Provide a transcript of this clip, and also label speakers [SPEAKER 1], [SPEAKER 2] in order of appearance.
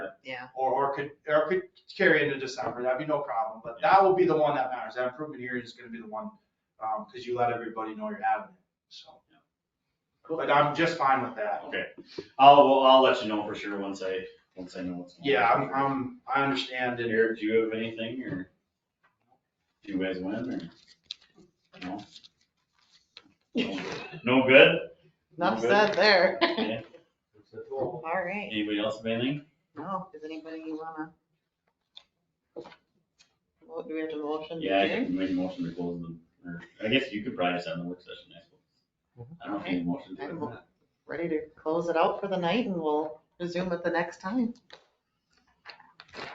[SPEAKER 1] Yeah.
[SPEAKER 2] Or, or could, or could carry into December, that'd be no problem, but that will be the one that matters, that improvement hearing is gonna be the one, um, cause you let everybody know you're having it, so. But I'm just fine with that.
[SPEAKER 3] Okay, I'll, well, I'll let you know for sure once I, once I know what's. going on.
[SPEAKER 2] Yeah, I'm, I'm, I understand
[SPEAKER 3] Did
[SPEAKER 2] and
[SPEAKER 3] Eric, do you have anything or? Do you guys win or? No? No good?
[SPEAKER 1] Enough
[SPEAKER 3] Good.
[SPEAKER 1] said there.
[SPEAKER 3] Okay.
[SPEAKER 1] All right.
[SPEAKER 3] Anybody else have anything?
[SPEAKER 1] No, does anybody wanna? Well, Do we have a motion? to
[SPEAKER 3] Yeah, I
[SPEAKER 1] adjourn?
[SPEAKER 3] can make a motion to close them, or I guess you could probably just have the work session next week. I don't think motion to.
[SPEAKER 1] I'm ready to close it out for the night and we'll resume it the next time.